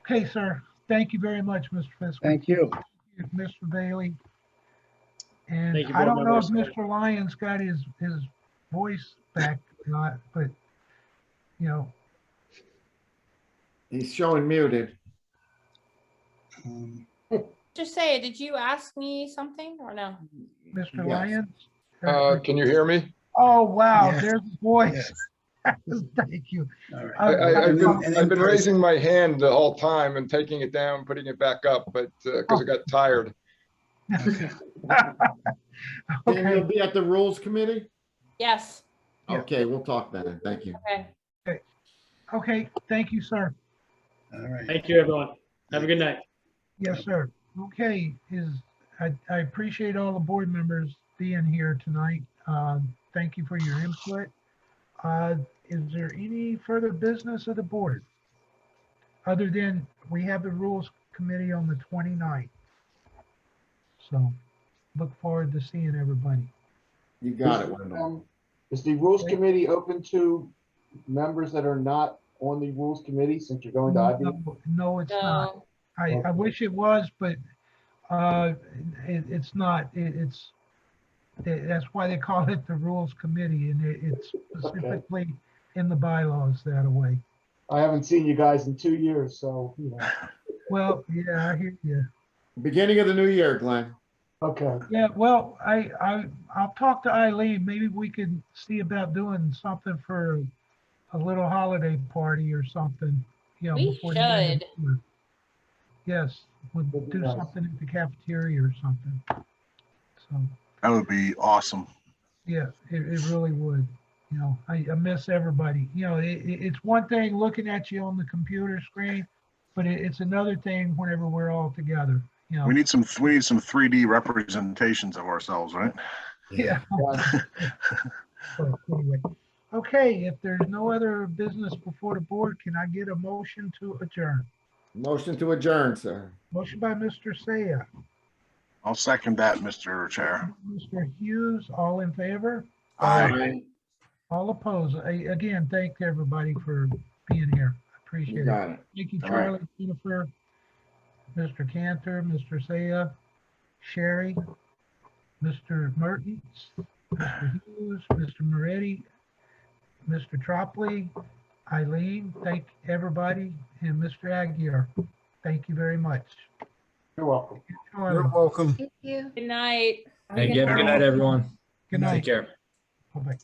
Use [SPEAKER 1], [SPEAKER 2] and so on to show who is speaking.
[SPEAKER 1] Okay, sir. Thank you very much, Mr. Fisker,
[SPEAKER 2] Thank you.
[SPEAKER 1] Mr. Bailey. And
[SPEAKER 3] Thank you,
[SPEAKER 1] I
[SPEAKER 3] board
[SPEAKER 1] don't know if
[SPEAKER 3] members.
[SPEAKER 1] Mr. Lyons got his, his voice back or not, but, you know,
[SPEAKER 4] He's showing muted.
[SPEAKER 2] Um,
[SPEAKER 5] Just say, did you ask me something or no?
[SPEAKER 1] Mr.
[SPEAKER 4] Yes.
[SPEAKER 1] Lyons?
[SPEAKER 6] Uh, can you hear me?
[SPEAKER 1] Oh, wow,
[SPEAKER 2] Yes.
[SPEAKER 1] there's a voice.
[SPEAKER 2] yes,
[SPEAKER 1] Thank you.
[SPEAKER 2] all right.
[SPEAKER 6] I, I, I've
[SPEAKER 2] And then
[SPEAKER 6] been, I've been
[SPEAKER 2] Chris.
[SPEAKER 6] raising my hand the whole time and taking it down, putting it back up, but, uh 'cause cause I got tired.
[SPEAKER 4] Dan,
[SPEAKER 1] Okay.
[SPEAKER 4] you'll be at the Rules Committee?
[SPEAKER 5] Yes,
[SPEAKER 1] Yeah.
[SPEAKER 4] Okay, we'll talk then. Thank you.
[SPEAKER 5] okay.
[SPEAKER 1] Okay, thank you, sir.
[SPEAKER 2] All right.
[SPEAKER 3] Thank you, everyone. Have a good night.
[SPEAKER 1] Yes, sir. Okay, is, I, I appreciate all the board members being here tonight. Um, thank you for your input. Uh, is there any further business of the board? Other than, we have the rules committee on the 29th. So, look forward to seeing everybody.
[SPEAKER 4] You got it, Wendell.
[SPEAKER 7] Um, Is the Rules
[SPEAKER 1] Okay.
[SPEAKER 7] Committee open to members that are not on the Rules Committee since you're going to IB?
[SPEAKER 1] No, No, it's not.
[SPEAKER 5] No,
[SPEAKER 1] I, I wish it was, but, uh, it, it's not, it, it's, tha- that's why they call it the Rules Committee, and it, it's specifically in the bylaws that way.
[SPEAKER 7] I haven't seen you guys in two years, so, you know,
[SPEAKER 1] Well, yeah, I hear you.
[SPEAKER 4] Beginning of the new year, Glenn.
[SPEAKER 7] okay.
[SPEAKER 1] Yeah, well, I, I, I'll talk to Eileen, maybe we can see about doing something for a little holiday party or something, you know.
[SPEAKER 5] We
[SPEAKER 1] before the end of
[SPEAKER 5] should.
[SPEAKER 1] the year. Yes, we'll
[SPEAKER 7] Would
[SPEAKER 1] do
[SPEAKER 7] be nice.
[SPEAKER 1] something at the cafeteria or something. So.
[SPEAKER 8] That would be awesome.
[SPEAKER 1] Yeah, it, it really would. You know, I, I miss everybody. You know, it, it, it's one thing looking at you on the computer screen, but it, it's another thing whenever we're all together, you know.
[SPEAKER 8] We need some, we need some 3D representations of ourselves, right?
[SPEAKER 1] Yeah. But anyway, Okay, if there's no other business before the board, can I get a motion to adjourn?
[SPEAKER 4] Motion to adjourn, sir.
[SPEAKER 1] Motion by Mr. Saya,
[SPEAKER 8] I'll second that, Mr. Chair.
[SPEAKER 1] Mr. Hughes, all in favor?
[SPEAKER 8] Aye.
[SPEAKER 1] All opposed? I, again, thank everybody for being here. I Appreciate
[SPEAKER 4] You
[SPEAKER 1] it.
[SPEAKER 4] got it.
[SPEAKER 1] Thank you,
[SPEAKER 4] All right.
[SPEAKER 1] Charlie, Jennifer, Mr. Cantor, Mr. Saya, Sherry, Mr. Mertens, Mr. Hughes, Mr. Moretti, Mr. Tropley, Eileen, thank everybody, and Mr. Aguirre. Thank you very much.
[SPEAKER 7] You're welcome.
[SPEAKER 1] Good
[SPEAKER 2] welcome.
[SPEAKER 5] good night.
[SPEAKER 9] Thank you. Have a Good night, everyone.
[SPEAKER 1] night.
[SPEAKER 9] Take care.
[SPEAKER 1] Bye-bye.